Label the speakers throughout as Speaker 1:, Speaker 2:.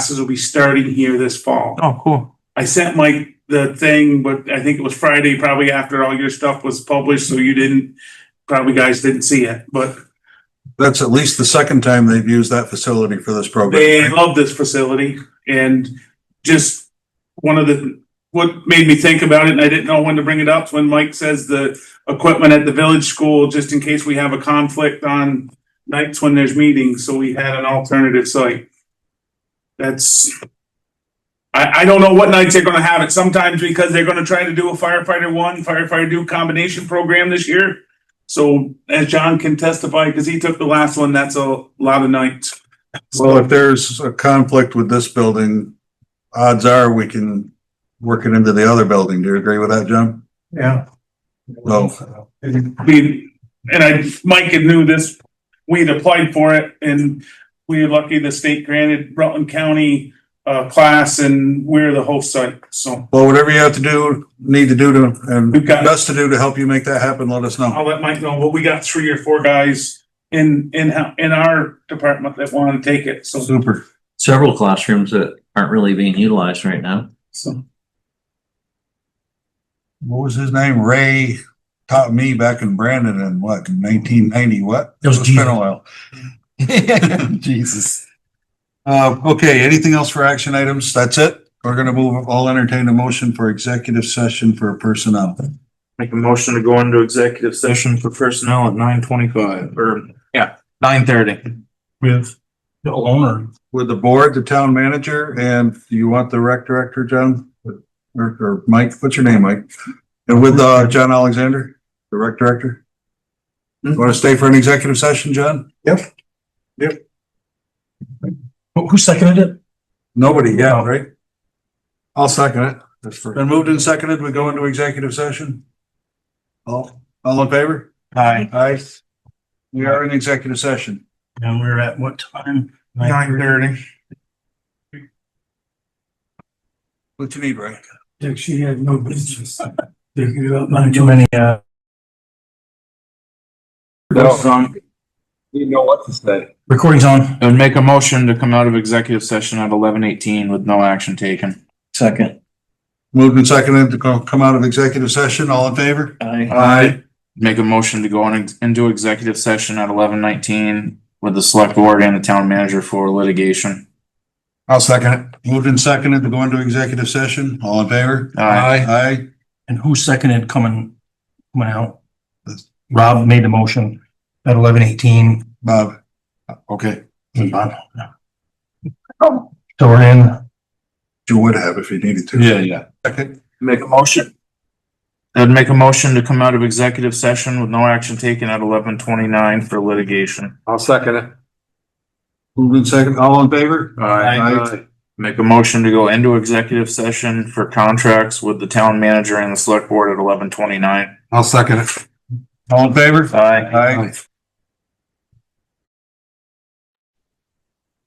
Speaker 1: classes will be starting here this fall.
Speaker 2: Oh, cool.
Speaker 1: I sent Mike the thing, but I think it was Friday, probably after all your stuff was published, so you didn't, probably guys didn't see it, but
Speaker 3: That's at least the second time they've used that facility for this
Speaker 1: they
Speaker 3: program.
Speaker 1: love this facility and just one of the, what made me think about it, and I didn't know when to bring it up, is when Mike says the equipment at the village school, just in case we have a conflict on nights when there's meetings, so we had an alternative site. That's, I, I don't know what nights they're gonna have it, sometimes because they're gonna try to do a firefighter one, firefighter two combination program this year. So as John can testify, cause he took the last one, that's a lot of nights.
Speaker 3: Well, if there's a conflict with this building, odds are we can work it into the other building. Do you agree with that, John?
Speaker 4: Yeah.
Speaker 3: No.
Speaker 1: we, and I, Mike had knew this, we had applied for it and we were lucky the state granted Rutland County uh, class and we're the host site, so
Speaker 3: Well, whatever you have to do, need to do to, and
Speaker 1: We've got-
Speaker 3: best to do to help you make that happen, let us know.
Speaker 1: I'll let Mike know, but we got three or four guys in, in, in our department that want to take it, so,
Speaker 3: Super.
Speaker 5: several classrooms that aren't really being utilized right now.
Speaker 1: so.
Speaker 3: What was his name? Ray taught me back in Brandon in what, nineteen ninety, what?
Speaker 4: That was
Speaker 3: It's been
Speaker 4: Jesus.
Speaker 3: a while.
Speaker 4: Jesus.
Speaker 3: Uh, okay, anything else for action items? That's it? We're gonna move, I'll entertain a motion for executive session for personnel.
Speaker 4: Make a motion to go into executive session for personnel at nine twenty-five or, yeah, nine thirty. With the owner.
Speaker 3: With the board, the town manager, and do you want the rec director, John? Or, or Mike, what's your name, Mike? And with, uh, John Alexander, the rec director? Want to stay for an executive session, John?
Speaker 4: Who seconded it?
Speaker 3: Nobody, yeah, right? I'll second it. Been moved and seconded, we go into executive session? All, all in favor?
Speaker 4: Hi,
Speaker 3: Aye. We are in executive session.
Speaker 4: and we're at what time?
Speaker 1: Nine thirty.
Speaker 3: What you need, Ray?
Speaker 4: She had no business. Too many, uh. Recording's on.
Speaker 6: You know what to say.
Speaker 4: Recording's on. And make a motion to come out of executive session at eleven eighteen with no action taken.
Speaker 5: Second.
Speaker 3: Moved and seconded to go- come out of executive session, all in favor?
Speaker 5: I
Speaker 3: Aye.
Speaker 4: Make a motion to go on ex- into executive session at eleven nineteen with the select board and the town manager for litigation.
Speaker 3: I'll second it. Moved and seconded to go into executive session, all in favor?
Speaker 4: Aye.
Speaker 3: Aye.
Speaker 6: And who seconded coming, coming out?
Speaker 3: This-
Speaker 6: Rob made the motion at eleven eighteen.
Speaker 3: Bob? Okay.
Speaker 6: So we're in.
Speaker 3: You would have if you needed to.
Speaker 4: yeah.
Speaker 3: Second.
Speaker 4: Make a motion. I'd make a motion to come out of executive session with no action taken at eleven twenty-nine for litigation.
Speaker 6: I'll second it.
Speaker 3: Moved and seconded, all in favor?
Speaker 4: Aye. Make a motion to go into executive session for contracts with the town manager and the select board at eleven twenty-nine.
Speaker 3: I'll second it. All in favor?
Speaker 4: Aye.
Speaker 3: Aye.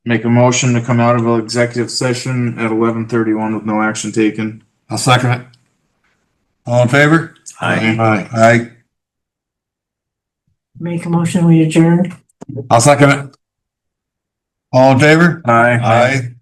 Speaker 4: Make a motion to come out of executive session at eleven thirty-one with no action taken.
Speaker 3: I'll second it. All in favor?
Speaker 4: Aye.
Speaker 3: Aye. Aye.
Speaker 7: Make a motion, we adjourn.
Speaker 3: I'll second it. All in favor?
Speaker 4: Aye.
Speaker 3: Aye.